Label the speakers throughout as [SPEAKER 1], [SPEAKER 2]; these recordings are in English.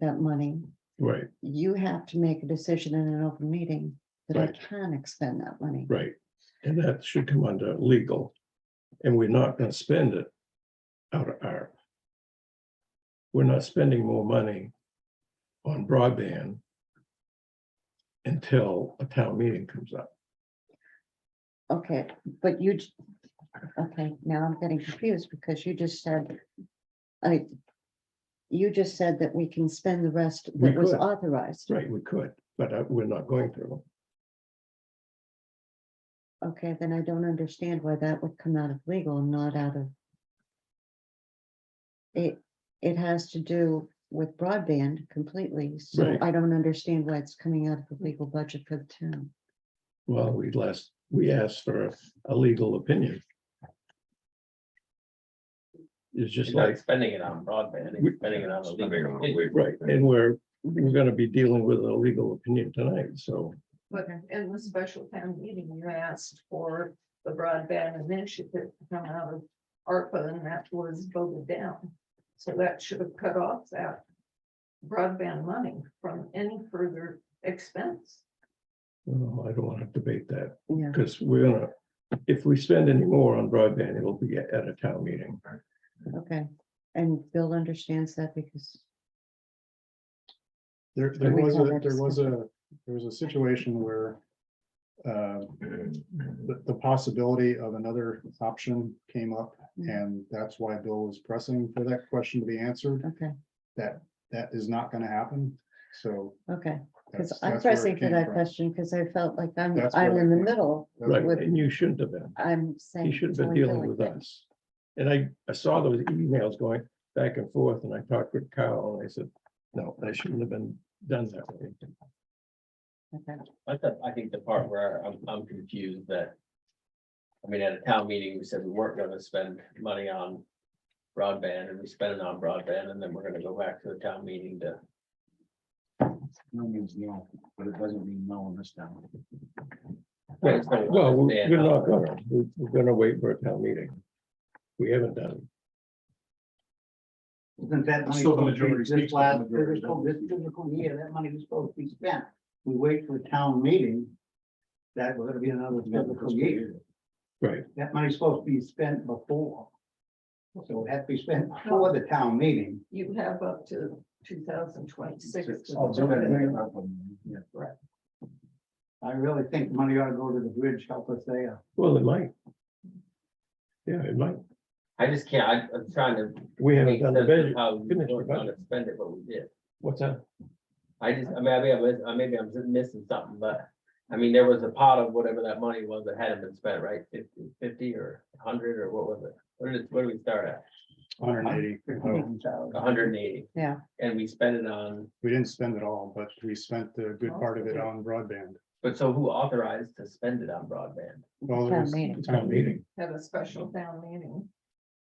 [SPEAKER 1] that money,
[SPEAKER 2] Right,
[SPEAKER 1] you have to make a decision in an open meeting that I
[SPEAKER 2] Right.
[SPEAKER 1] can expend that money.
[SPEAKER 2] right. And that should come under legal. And we're not gonna spend it out of our. We're not spending more money on broadband until a town meeting comes up.
[SPEAKER 1] Okay, but you, j- okay, now I'm getting confused because you just said, I, you just said that we can spend the rest
[SPEAKER 2] We
[SPEAKER 1] that was
[SPEAKER 2] could.
[SPEAKER 1] authorized.
[SPEAKER 2] Right, we could, but uh, we're not going to.
[SPEAKER 1] Okay, then I don't understand why that would come out of legal and not out of. It, it has to do with broadband completely, so
[SPEAKER 2] Right.
[SPEAKER 1] I don't understand why it's coming out of the legal budget for the town.
[SPEAKER 2] Well, we last, we asked for a legal opinion. It's just
[SPEAKER 3] He's not
[SPEAKER 2] like,
[SPEAKER 3] spending it on broadband, he's spending it on the
[SPEAKER 4] Spending on
[SPEAKER 3] legal.
[SPEAKER 4] legal.
[SPEAKER 2] right, and we're, we're gonna be dealing with a legal opinion tonight, so.
[SPEAKER 5] But in the special town meeting, you asked for the broadband initiative to come out of ARPA and that was voted down. So that should have cut off that broadband money from any further expense.
[SPEAKER 2] Well, um, I don't want to debate that,
[SPEAKER 1] Yeah,
[SPEAKER 2] because we're gonna, if we spend any more on broadband, it'll be at a town meeting.
[SPEAKER 1] okay, and Bill understands that because,
[SPEAKER 6] There, there
[SPEAKER 1] we
[SPEAKER 6] was
[SPEAKER 1] have
[SPEAKER 6] a,
[SPEAKER 1] that
[SPEAKER 6] there was a, there was a situation where uh, the, the possibility of another option came up,
[SPEAKER 1] Mm.
[SPEAKER 6] and that's why Bill was pressing for that question to be answered.
[SPEAKER 1] okay,
[SPEAKER 6] That, that is not gonna happen, so.
[SPEAKER 1] okay. Because
[SPEAKER 6] that's-
[SPEAKER 1] I'm
[SPEAKER 6] that's where it
[SPEAKER 1] pressing for
[SPEAKER 6] came
[SPEAKER 1] that
[SPEAKER 6] from.
[SPEAKER 1] question because I felt like I'm,
[SPEAKER 6] That's
[SPEAKER 1] I'm
[SPEAKER 6] where
[SPEAKER 1] in
[SPEAKER 6] that
[SPEAKER 1] the
[SPEAKER 6] came from.
[SPEAKER 1] middle.
[SPEAKER 6] That's
[SPEAKER 2] Right,
[SPEAKER 6] where-
[SPEAKER 2] and you shouldn't have been,
[SPEAKER 1] I'm saying.
[SPEAKER 2] you should have
[SPEAKER 1] telling
[SPEAKER 2] been
[SPEAKER 1] Bill
[SPEAKER 2] dealing
[SPEAKER 1] like
[SPEAKER 2] with
[SPEAKER 1] that.
[SPEAKER 2] us. And I, I saw those emails going back and forth, and I talked with Kyle, and I said, no, that shouldn't have been done that way.
[SPEAKER 1] Okay.
[SPEAKER 3] I thought, I think the part where I'm, I'm confused that. I mean, at a town meeting, we said we weren't gonna spend money on broadband and we spent it on broadband and then we're gonna go back to the town meeting to.
[SPEAKER 4] No means no, but it doesn't mean no in this town.
[SPEAKER 3] Right, so I
[SPEAKER 2] Well, we-
[SPEAKER 3] understand
[SPEAKER 2] we're
[SPEAKER 3] how-
[SPEAKER 2] not gonna, We- we're gonna wait for a town meeting. We haven't done,
[SPEAKER 7] Isn't that money
[SPEAKER 4] Still
[SPEAKER 7] supposed
[SPEAKER 4] the
[SPEAKER 7] to be
[SPEAKER 4] majority
[SPEAKER 7] this
[SPEAKER 4] speaks to the
[SPEAKER 7] last
[SPEAKER 4] majority,
[SPEAKER 7] fiscal,
[SPEAKER 4] doesn't
[SPEAKER 7] this fiscal year, that money was supposed to be spent. We wait for a town meeting. That we're gonna be another fiscal year.
[SPEAKER 2] Right.
[SPEAKER 7] That money's supposed to be spent before. So it had to be spent before the town meeting.
[SPEAKER 5] You have up to two thousand twenty-six.
[SPEAKER 7] Oh, so that- Yeah, right. I really think money ought to go to the bridge, help us there.
[SPEAKER 2] well, it might. Yeah, it might,
[SPEAKER 3] I just can't, I- I'm trying to.
[SPEAKER 2] we haven't
[SPEAKER 3] make
[SPEAKER 2] done the
[SPEAKER 3] sense of
[SPEAKER 2] budget,
[SPEAKER 3] How we
[SPEAKER 2] Finish the
[SPEAKER 3] were gonna
[SPEAKER 2] budget.
[SPEAKER 3] spend it, but we did.
[SPEAKER 2] what's that?
[SPEAKER 3] I just, I mean, I may have missed- I maybe I'm just missing something, but, I mean, there was a pot of whatever that money was that hadn't been spent, right? Fifty, fifty or hundred, or what was it? Where did, where did we start at?
[SPEAKER 6] Hundred and eighty, uh,
[SPEAKER 3] A hundred and eighty,
[SPEAKER 1] Yeah,
[SPEAKER 3] and we spent it on,
[SPEAKER 6] we didn't spend it all, but we spent the good part of it on broadband.
[SPEAKER 3] but so who authorized to spend it on broadband?
[SPEAKER 6] Well, it
[SPEAKER 1] Town
[SPEAKER 6] was
[SPEAKER 1] meeting.
[SPEAKER 6] town meeting,
[SPEAKER 5] Have a special town meeting.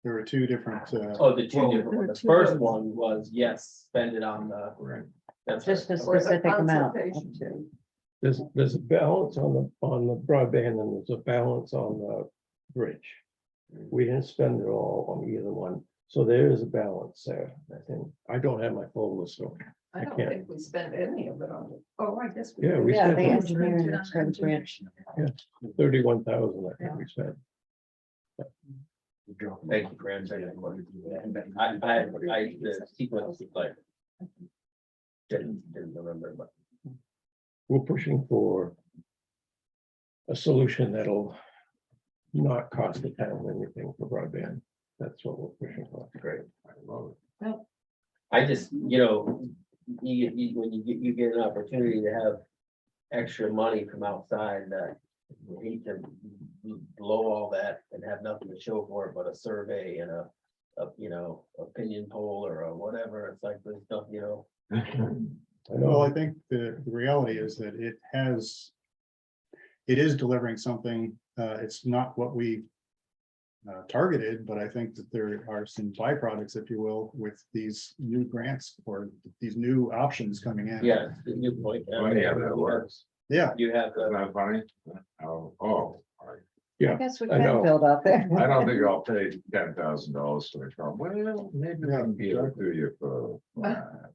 [SPEAKER 6] there were two different, uh,
[SPEAKER 3] Oh, the two
[SPEAKER 5] Well,
[SPEAKER 3] different, ones. the
[SPEAKER 5] two
[SPEAKER 3] first
[SPEAKER 5] votes.
[SPEAKER 3] one was, yes, spend it on the. That's
[SPEAKER 1] just a
[SPEAKER 3] right.
[SPEAKER 5] Or the
[SPEAKER 1] specific amount.
[SPEAKER 5] consultation too.
[SPEAKER 2] There's, there's a balance on the, on the broadband and there's a balance on the bridge. We didn't spend it all on either one, so there is a balance there, I think. I don't have my full list, so, I
[SPEAKER 5] I don't
[SPEAKER 2] can't.
[SPEAKER 5] think we spent any of it on, it. oh, I guess.
[SPEAKER 2] Yeah,
[SPEAKER 5] did.
[SPEAKER 2] we
[SPEAKER 1] Yeah,
[SPEAKER 2] spent
[SPEAKER 1] the
[SPEAKER 2] it.
[SPEAKER 1] engineering and service branch.
[SPEAKER 2] thirty-one thousand, I think we spent.
[SPEAKER 3] Thank you for answering that question. I, I, I, the sequence is like. Didn't, didn't remember, but.
[SPEAKER 2] we're pushing for a solution that'll not cost the town anything for broadband. That's what we're pushing for. Great.
[SPEAKER 3] I just, you know, you, you, when you get, you get an opportunity to have extra money from outside that you hate to blow all that and have nothing to show for it but a survey and a, a, you know, opinion poll or a whatever. It's like this stuff, you know.
[SPEAKER 2] I
[SPEAKER 6] Well,
[SPEAKER 2] know,
[SPEAKER 6] I think the the reality is that it has. It is delivering something, uh, it's not what we. Uh, targeted, but I think that there are some byproducts, if you will, with these new grants or these new options coming in.
[SPEAKER 3] Yeah, it's a good point. I mean,
[SPEAKER 4] Yeah, that works.
[SPEAKER 6] Yeah,
[SPEAKER 3] You have,
[SPEAKER 4] Isn't
[SPEAKER 3] the-
[SPEAKER 4] that funny? Oh, oh,
[SPEAKER 1] I
[SPEAKER 2] Yeah,
[SPEAKER 1] guess we
[SPEAKER 4] I
[SPEAKER 1] can
[SPEAKER 4] know.
[SPEAKER 1] build up there.
[SPEAKER 4] I don't think I'll pay ten thousand dollars for the car. Well, maybe I can be able to do you for. uh,